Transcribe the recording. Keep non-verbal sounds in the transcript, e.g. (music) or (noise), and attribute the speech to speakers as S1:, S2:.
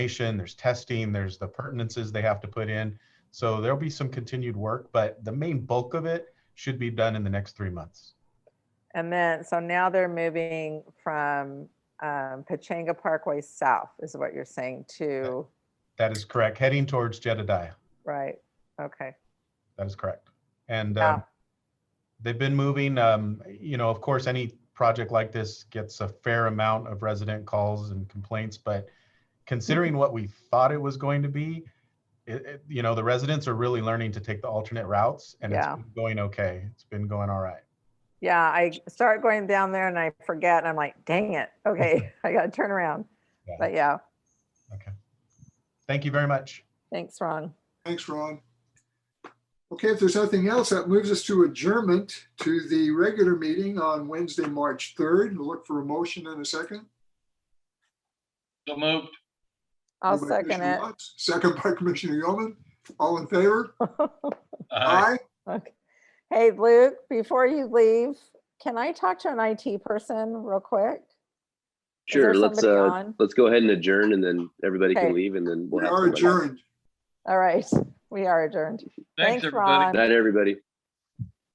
S1: evaluation, there's testing, there's the pertinences they have to put in. So there'll be some continued work, but the main bulk of it should be done in the next three months.
S2: And then, so now they're moving from um, Pachanga Parkway South is what you're saying to,
S1: That is correct. Heading towards Jedediah.
S2: right? Okay.
S1: That is correct. And
S2: Wow.
S1: um, they've been moving, um, you know, of course, any project like this gets a fair amount of resident calls and complaints, but considering what we thought it was going to be, it, it- you know, the residents are really learning to take the alternate routes and it's
S2: Yeah.
S1: been going okay. It's been going all right.
S2: Yeah, I start going down there and I forget and I'm like, dang it. Okay, I gotta turn around.
S1: Yeah.
S2: But yeah,
S1: Thank you very much.
S2: thanks, Ron.
S3: Thanks, Ron. Okay, if there's nothing else, that moves us to adjournment to the regular meeting on Wednesday, March 3rd. We'll Look for a motion in a second.
S4: So moved.
S2: I'll
S3: Moved by
S2: second
S3: Commissioner
S2: it.
S3: Watts, Second by Commissioner Yeoman. All in favor?
S4: Aye.
S2: (laughs) Okay. Hey, Luke, before you leave, can I talk to an IT person real quick? Is there
S5: Sure, let's,
S2: somebody
S5: uh,
S2: on?
S5: let's go ahead and adjourn and then everybody
S2: Okay.
S5: can leave and then
S3: We
S5: we'll have.
S3: are
S5: somebody.
S3: adjourned.
S2: All right, we are adjourned.
S4: Thanks,
S2: Thanks,
S4: everybody.
S2: Ron.
S5: Night, everybody.